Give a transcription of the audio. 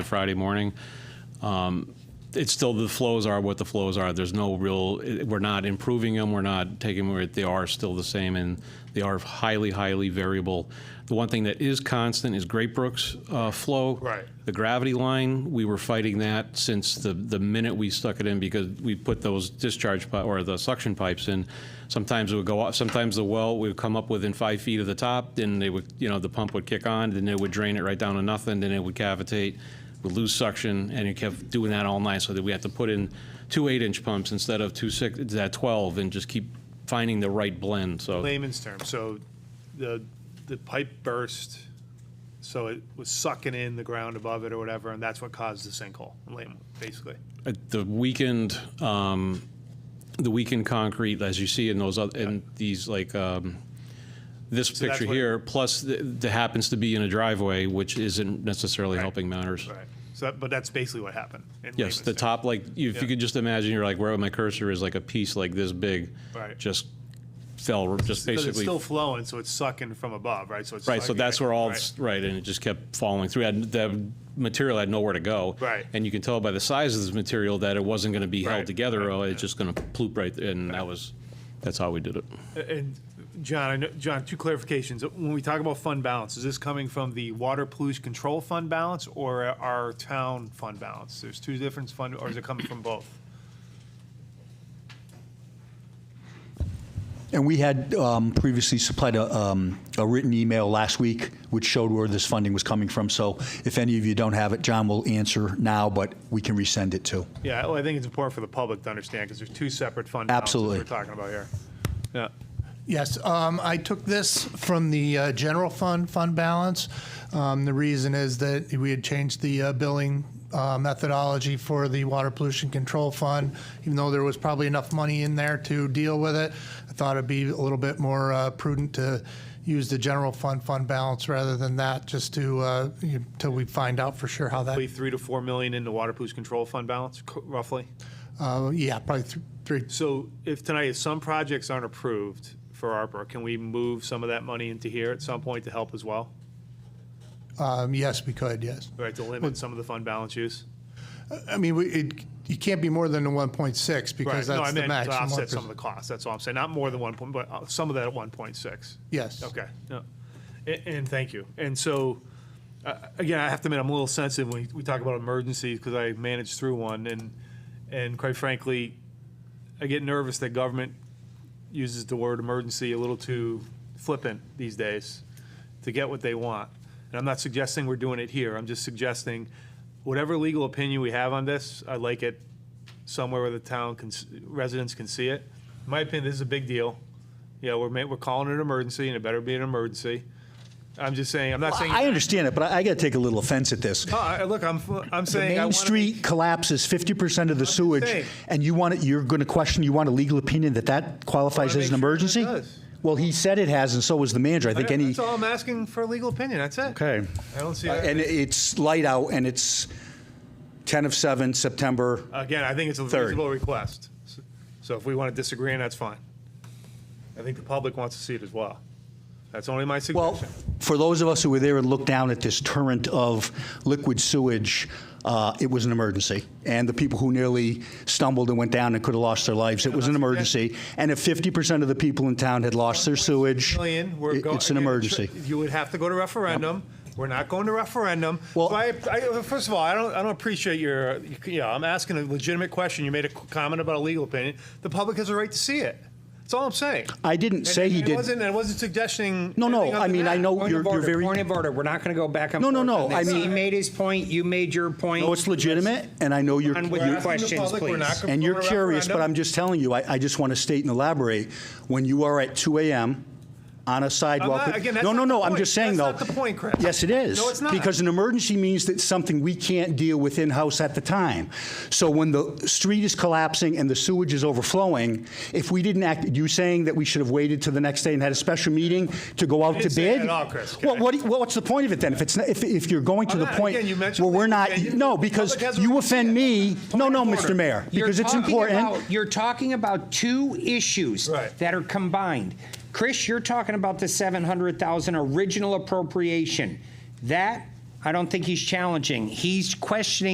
Friday morning. Um, It's still, the flows are what the flows are. There's no real, it- we're not improving them, we're not taking, them where they are still the same, and they are highly, highly variable. The one thing that is constant is Great Brook's uh, flow. Right. The gravity line, we were fighting that since the, the minute we stuck it in because we put those discharge, pi- or the suction pipes in. Sometimes it would go off, sometimes the well would come up within five feet of the top, then they would, you know, the pump would kick on, then it would drain it right down to nothing, then it would cavitate, would lose suction, and it kept doing that all night, so that we had to put in two eight-inch pumps instead of two six, that 12, and just keep finding the right blend, so. layman's term, so the, the pipe burst, so it was sucking in the ground above it or whatever, and that's what caused the sinkhole, lame, basically. at the weakened, um, the weakened concrete, as you see in those, oth- in these, like, um, this that's picture what- here, plus th- that happens to be in a driveway, which isn't necessarily helping matters. Right. So, that- but that's basically what happened. in Yes, the layman's term. top, like, you- if you Yeah. could just imagine, you're like, where my cursor is, like a piece like this big. Right. Just fell, just Because it's basically still flowing, so it's sucking from above, right? So it's. Right, so sucking that's it, where all, right. this- right, and it just kept falling through. Had- The material had nowhere to go. Right. And you can tell by the size of this material that it wasn't going to be held Right, together, or it's just going to ploop right, and that was, that's how we did it. And John, I know, John, two clarifications. When we talk about fund balance, is this coming from the water pollution control fund balance or our town fund balance? There's two different fund, or is it coming from both? And we had um, previously supplied a, um, a written email last week, which showed where this funding was coming from. So if any of you don't have it, John will answer now, but we can resend it too. Yeah, well, I think it's important for the public to understand because there's two separate fund balances Absolutely. we're talking about here. Yeah, Yes, um, I took this from the uh, general fund, fund balance. Um, The reason is that we had changed the uh, billing uh, methodology for the Water Pollution Control Fund, even though there was probably enough money in there to deal with it. I thought it'd be a little bit more uh, prudent to use the general fund, fund balance rather than that, just to, uh, you know, till we find out for sure how that, probably three to four million in the water pollution control fund balance, co- roughly. uh, yeah, probably th- three, So if tonight, if some projects aren't approved for ARPA, can we move some of that money into here at some point to help as well? um, yes, we could, yes. Right, to limit some of the fund balance use? I mean, we- it, you can't be more than the 1.6 Right, because no, I that's the meant to max. offset some of the costs, that's all I'm saying, not more than one point, but uh, some of that at one point six. Yes. Okay, no, and, and thank you. And so, uh, again, I have to admit, I'm a little sensitive when we talk about emergencies because I managed through one, and and quite frankly, I get nervous that government uses the word emergency a little too flippant these days to get what they want. And I'm not suggesting we're doing it here. I'm just suggesting whatever legal opinion we have on this, I'd like it somewhere where the town can, s- residents can see it. In my opinion, this is a big deal. Yeah, we're, ma- we're calling it an emergency, and it better be an emergency. I'm just saying, I'm not saying. I understand it, but I, I got to take a little offense at this. No, I- look, I'm, f- I'm The saying. I main wanna- street collapses 50% of the sewage, saying. and you want it, you're going to question, you want a legal opinion that that qualifies Wanna as an make sure that it emergency? does. Well, he said it has, and so was the manager. I think Yeah, any, That's all I'm asking for a legal opinion, that's it. okay. I don't see Uh, that. And it's light out, and it's 10 of 7, September. Again, I think it's a Third. reasonable request. So if we want to disagree, and that's fine. I think the public wants to see it as well. That's only my Well, suggestion. for those of us who were there and looked down at this torrent of liquid sewage, uh, it was an emergency. And the people who nearly stumbled and went down and could have lost their lives, it was an emergency. And if 50% of the people in town had lost their sewage, Million, we're it- go- it's an again, emergency. You would have to go to referendum. We're not going to referendum. Well- So I, I, first of all, I don't, I don't appreciate your, you know, I'm asking a legitimate question. You made a comment about a legal opinion. The public has a right to see it. That's all I'm saying. I didn't say And- he and It did. wasn't, I wasn't suggesting. No, no, anything other I than mean, I that. know Point you're of you're order, very, point of order, we're not going to go back and No, forth. no, no, on this. I mean- He made his point, you made your point. no, it's legitimate, and I know you're, On We're with your asking the questions, public, we're please. not gonna and go you're to curious, but referendum. I'm just telling you, I I just want to state and elaborate, when you are at 2 AM on a sidewalk. not- again, that's No, no, not no, the I'm point. just saying, though. That's not the point, Chris. Yes, it is. No, it's not. Because an emergency means that something we can't deal with in-house at the time. So when the street is collapsing and the sewage is overflowing, if we didn't act, you saying that we should have waited till the next day and had a special meeting to go out to didn't say that bid? at all, Chris, okay? Well, what, do you- well, what's the point of it then? If it's, not- if, if you're going to I'm the not- point again, you mentioned where we're legal not, opinion. no, The because public has a right you to offend me, no, no, Mr. Mayor, You're because it's talking important. about- You're talking about two issues Right. that are combined. Chris, you're talking about the 700,000 original appropriation. That I don't think he's challenging. He's questioning